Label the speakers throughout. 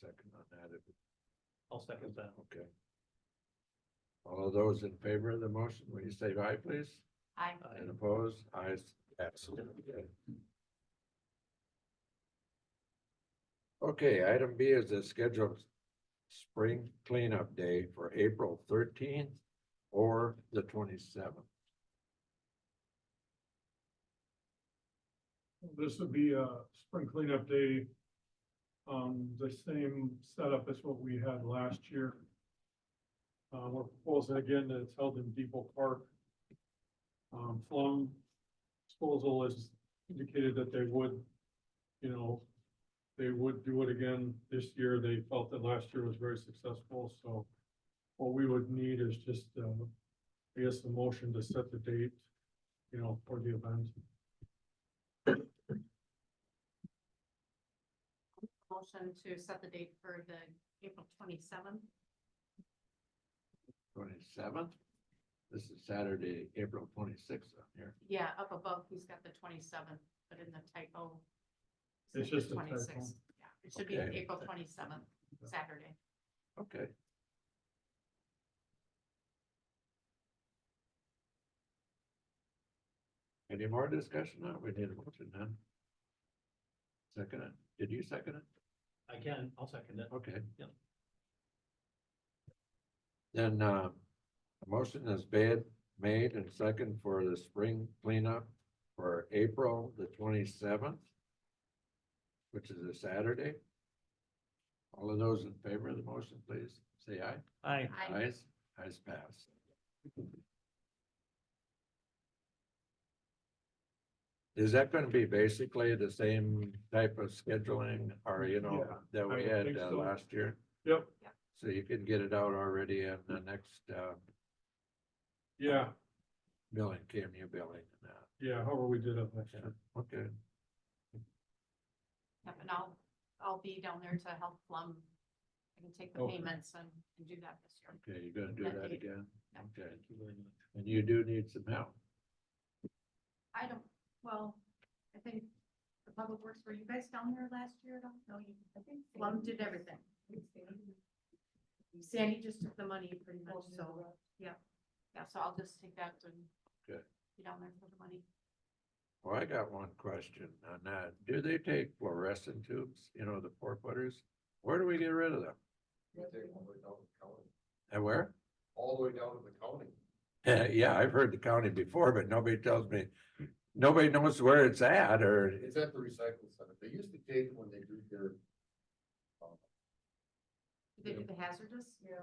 Speaker 1: second on that. if-
Speaker 2: I'll second that.
Speaker 1: Okay. All those in favor of the motion, will you say aye, please?
Speaker 3: Uh,
Speaker 4: I,
Speaker 1: And opposed? Ayes, absolutely. Okay, item B is the scheduled spring cleanup day for April thirteenth or the twenty-seventh.
Speaker 3: This would be a spring cleanup day. Um, the same setup as what we had last year. Uh, we're proposing again that it's held in Depot Park. Um, Flum disposal has indicated that they would, you know, they would do it again this year. They felt that last year was very successful, so what we would need is just, uh, I guess, a motion to set the date, you know, for the event.
Speaker 4: motion to set the date for the April twenty-seventh.
Speaker 1: Twenty-seventh? This is Saturday, April twenty-sixth on here.
Speaker 4: Yeah, up above, he's got the twenty-seventh, but in the typo.
Speaker 3: It's
Speaker 4: said the
Speaker 3: just a typo.
Speaker 4: 26th. Yeah, it should be
Speaker 1: Okay.
Speaker 4: April twenty-seventh, Saturday.
Speaker 1: Okay. Any more discussion? No, we need a motion then. Second it. Did you second it?
Speaker 2: I can, I'll second it.
Speaker 1: Okay.
Speaker 2: Yep.
Speaker 1: Then, uh, a motion is bad, made and second for the spring cleanup for April the twenty-seventh, which is a Saturday. All of those in favor of the motion, please say aye.
Speaker 2: Aye.
Speaker 4: I,
Speaker 1: Eyes, eyes pass. Is that gonna be basically the same type of scheduling or, you know,
Speaker 3: Yeah,
Speaker 1: that
Speaker 3: I
Speaker 1: we
Speaker 3: would
Speaker 1: had
Speaker 3: think
Speaker 1: uh,
Speaker 3: so.
Speaker 1: last year?
Speaker 3: Yep,
Speaker 1: So you can get it out already in the next uh
Speaker 3: yeah,
Speaker 1: billing, KMU billing and that.
Speaker 3: yeah, however we did it last year.
Speaker 1: Okay,
Speaker 4: yeah, and I'll, I'll be down there to help Plum. I can take the
Speaker 1: Okay.
Speaker 4: payments and, and do that this year.
Speaker 1: okay, you're gonna do
Speaker 4: That
Speaker 1: that
Speaker 4: date.
Speaker 1: again?
Speaker 4: Yeah.
Speaker 1: Okay,
Speaker 2: Thank you very much.
Speaker 1: and you do need some help.
Speaker 4: I don't, well, I think the public works, were you guys down there last year? I don't know. you, I think Plum did everything. Sandy just took the money pretty much, so, yeah, yeah, so I'll just take that and.
Speaker 1: Good.
Speaker 4: Be down there for the money.
Speaker 1: Well, I got one question on that. Do they take fluorescent tubes, you know, the four footers? Where do we get rid of them?
Speaker 5: You take all the way down to the county,
Speaker 1: And where?
Speaker 5: all the way down to the county.
Speaker 1: Uh, yeah, I've heard the county before, but nobody tells me, nobody knows where it's at or,
Speaker 5: It's at the recycling center. They used to take when they do their,
Speaker 4: They do the hazardous? Yeah.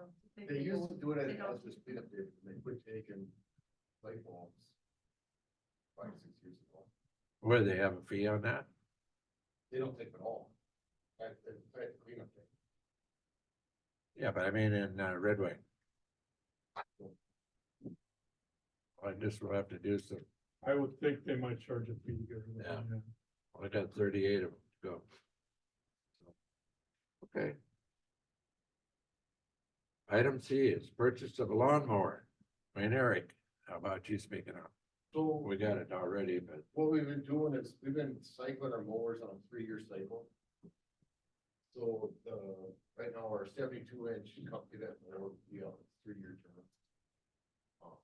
Speaker 5: they used to do it
Speaker 4: They
Speaker 5: at
Speaker 4: don't-
Speaker 5: hazardous cleanup day, but they quit taking light bulbs. Five, six years ago.
Speaker 1: where they have a fee on that?
Speaker 5: They don't take it all. At, at, at cleanup day.
Speaker 1: Yeah, but I mean in uh, Red Wing. I just will have to do some,
Speaker 3: I would think they might charge a fee here.
Speaker 1: Yeah. I got thirty-eight of them to go. Okay. Item C is purchase of a lawnmower. Wayne Eric, how about you speaking up?
Speaker 5: So
Speaker 1: We got it already, but
Speaker 5: what we've been doing is, we've been cycling our mowers on a three-year cycle. So, uh, right now, our seventy-two inch company that mower, we have a three-year term. Um,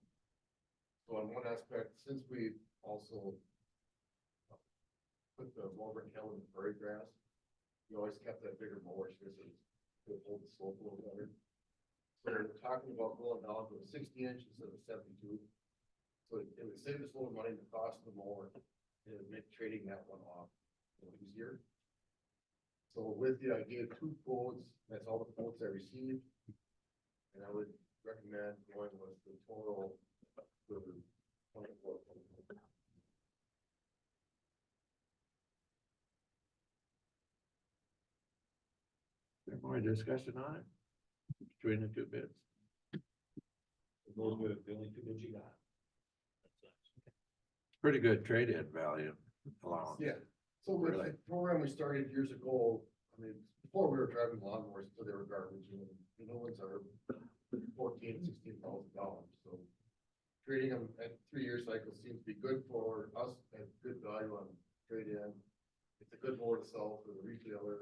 Speaker 5: So on one aspect, since we also uh, put the Auburn Hill in the prairie grass, we always kept that bigger mower, so it would hold the slope a little better. So we're talking about going down to a sixty inch instead of seventy-two. So it it would save us a little money in the cost of the mower, and it'd make trading that one off a little easier. So with the, I gave two quotes, that's all the quotes I received. And I would recommend going with the total for twenty-four.
Speaker 1: there more discussion on it? Between the two bids?
Speaker 2: Those were the only two that you got.
Speaker 1: pretty good trade-in value allowance.
Speaker 5: Yeah, so with
Speaker 1: Really?
Speaker 5: the program we started years ago, I mean, before we were driving lawnmowers, so they were garbage, and the new ones are fourteen, sixteen thousand dollars, so. Trading them at three-year cycle seems to be good for us, at good value on trade-in. It's a good mower to sell for the retailer,